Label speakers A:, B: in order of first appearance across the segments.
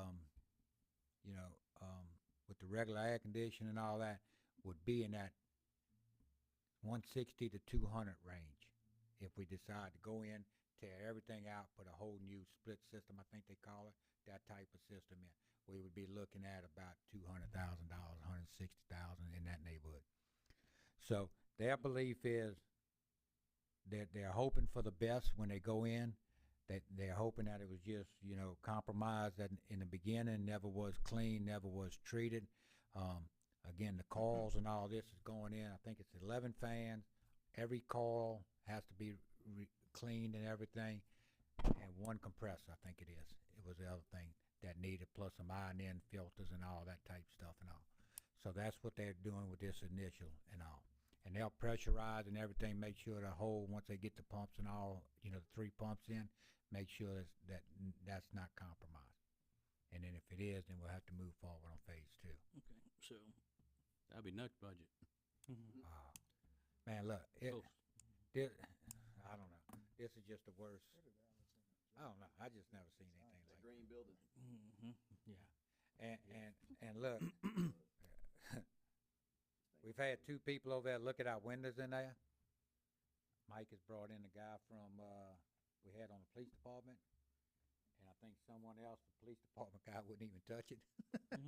A: um, regular air conditioning and all that would be in that one sixty to two hundred range. If we decide to go in, tear everything out, put a whole new split system, I think they call it, that type of system in, we would be looking at about two hundred thousand dollars, a hundred and sixty thousand in that neighborhood. So their belief is that they're hoping for the best when they go in. That they're hoping that it was just, you know, compromised that in the beginning never was clean, never was treated. Um, again, the coils and all this is going in. I think it's eleven fans. Every coil has to be re- cleaned and everything, and one compressor. I think it is. It was the other thing that needed, plus some iron in filters and all that type stuff and all. So that's what they're doing with this initial and all. And they'll pressurize and everything, make sure the hole, once they get the pumps and all, you know, the three pumps in, make sure that's, that n- that's not compromised. And then if it is, then we'll have to move forward on phase two.
B: Okay, so that'd be next budget.
A: Wow. Uh, Man, look, it,
B: Oh.
A: thi- I don't know. This is just the worst. I don't know. I just never seen anything like
C: green building.
B: Mm-hmm.
A: And, and, and look, we've had two people over there look at our windows in there. Mike has brought in a guy from, uh, we had on the police department. And I think someone else, the police department guy wouldn't even touch it.
B: I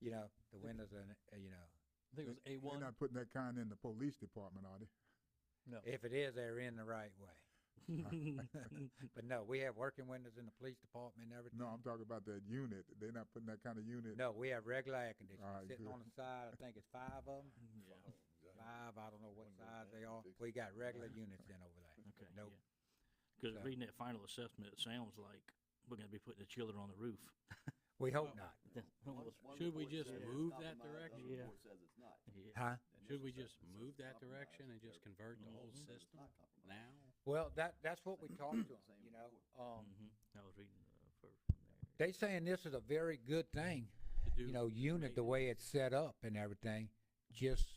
A: You know, the windows are, in- uh, you know,
B: mm-hmm. think it was A
D: They're
B: one.
D: not putting that kind in the police department, are they?
B: Oh.
A: if it is, they're in the right way. But no, we have working windows in the police department and everything.
D: No, I'm talking about that unit. They're not putting that kind of unit.
A: No, we have regular air conditioning.
D: Alright,
A: Sitting
D: good.
A: on the side, I think it's five of them. Five, I don't know what size they are. We got regular units in over there.
B: Okay, yeah.
A: Nope.
B: Because
A: So-
B: reading that final assessment, it sounds like we're gonna be putting the chiller on the roof.
A: We hope not.
E: Should we just move that direction?
C: Yeah.
B: Yeah.
C: says it's not.
B: Yeah.
A: Huh?
C: The
E: Should
C: initial
E: we just
C: assessment says
E: move
C: it's
E: that
C: compromised.
E: direction and just
C: They're-
E: convey the
B: Mhm.
E: whole
C: says Mm-hmm. it's
E: system
C: not compromised.
E: now?
A: Well, that, that's what we talked to them,
C: Same
A: you know. Um,
B: Mhm. I was reading uh, first.
A: they saying this is a very good thing,
E: to do
A: you know, unit, the way it's set up and everything. Just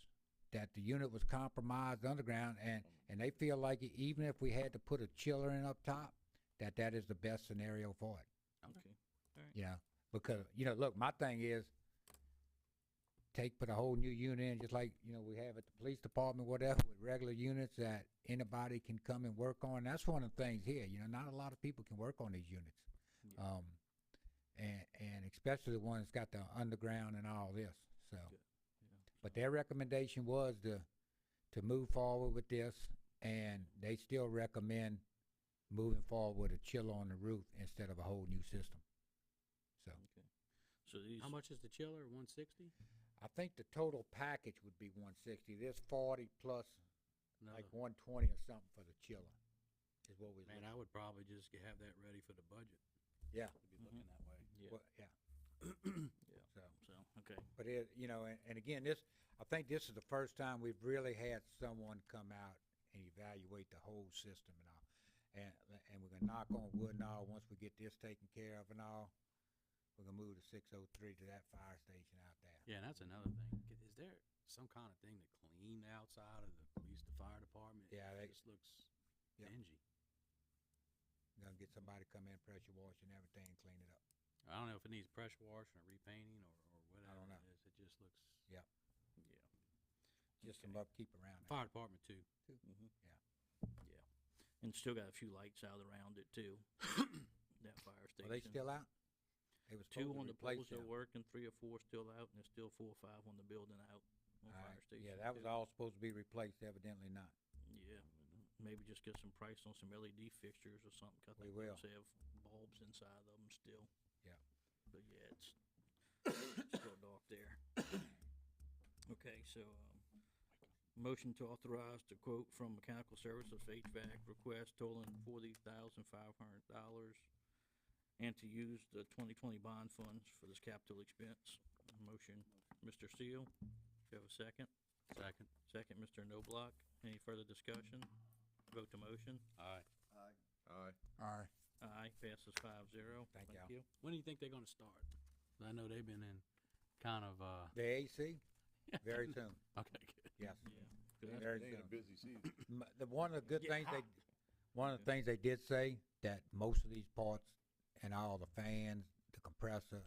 A: that the unit was compromised underground and, and they feel like e- even if we had to put a chiller in up top, that that is the best scenario for it.
B: Okay.
A: you know, because you know, look, my thing is take put a whole new unit in, just like you know we have at the police department, whatever, with regular units that anybody can come and work on. That's one of the things here. You know, not a lot of people can work on these units,
B: Yeah.
A: um, and and especially the one that's got the underground and all this. So, but their recommendation was to to move forward with this, and they still recommend moving forward with a chiller on the roof instead of a whole new system. So.
B: So these.
E: How much is the chiller? One sixty?
A: I think the total package would be one sixty, this forty plus like
E: Another,
A: one twenty or something for the chiller, is what we,
E: man, I would probably just g- have that ready for the budget.
A: Yeah.
E: To be looking that way.
B: Yeah.
A: well, yeah. So,
B: So okay.
A: but it, you know, and, and again, this, I think this is the first time we've really had someone come out and evaluate the whole system and all. And, and we're gonna knock on wood and all, once we get this taken care of and all, we're gonna move to six oh three to that fire station out there.
E: Yeah, and that's another thing. C- Is there some kind of thing to clean the outside of the police, the fire department?
A: Yeah,
E: It
A: they-
E: just looks
A: Yep.
E: dingy.
A: Gonna get somebody to come in, pressure wash and everything, and clean it up.
E: I don't know if it needs pressure washing or repainting or, or whatever
A: don't
E: it is. It just looks.
A: Yep.
E: Yeah.
A: Just some upkeep around it.
E: Fire department too.
B: Mhm.
A: Yeah.
B: Yeah. And still got a few lights out around it too. that fire station.
A: Are they still out? They was supposed
B: Two
A: to
B: on the
A: replace
B: poles are
A: them.
B: working, three or four still out, and there's still four or five on the building out on
A: All right.
B: fire station.
A: Yeah, that was
B: too.
A: all supposed to be replaced, evidently not.
B: Yeah, maybe just get some price on some LED fixtures or something. 'cause I
A: We
B: think those
A: will.
B: Have bulbs inside of them still.
A: Yeah.
B: But yeah, it's still dark there. Okay, so, um, motion to authorize the quote from Mechanical Services for HVAC request totaling forty thousand five hundred dollars and to use the twenty twenty bond funds for this capital expense. Motion, Mr. Steele, do you have a second?
E: Second.
B: Second, Mr. Noblock. Any further discussion? Vote to motion.
E: Aye.
C: Aye.
F: Aye.
D: Aye.
B: Aye, passes five zero.
A: Thank y'all.
B: you.
E: When do you think they're going to start? 'Cause I know they've been in kind of. uh
A: The AC, very soon,
E: Okay. good.
A: yes,
B: Yeah. 'cause that's-
A: very
F: They ain't a
A: soon.
F: busy season.
A: M- The, one of the good
B: Get
A: things they,
B: hot.
A: one of the things they did say, that most of these parts and all the fans, the compressor,